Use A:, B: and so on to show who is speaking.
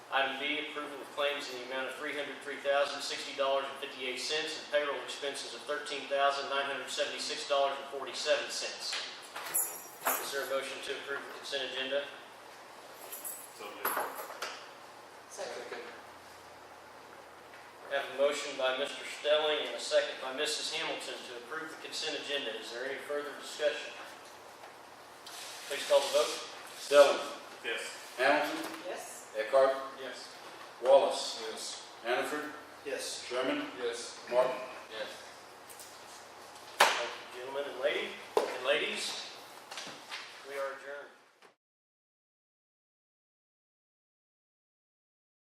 A: Item B, approval of claims in the amount of three hundred three thousand sixty dollars and fifty-eight cents and payroll expenses of thirteen thousand nine hundred seventy-six dollars and forty-seven cents. Is there a motion to approve the consent agenda?
B: So moved.
C: Second.
A: I Have a motion by Mr. Stelling and a second by Mrs. Hamilton to approve the consent agenda. Is there any further discussion? Please call the vote.
D: Stelling,
B: Yes.
D: Hamilton,
C: Yes.
D: Eckhart,
A: Yes.
D: Wallace,
E: Yes.
D: Hannaford,
A: Yes.
D: Sherman,
E: Yes.
D: Martin.
E: Yes.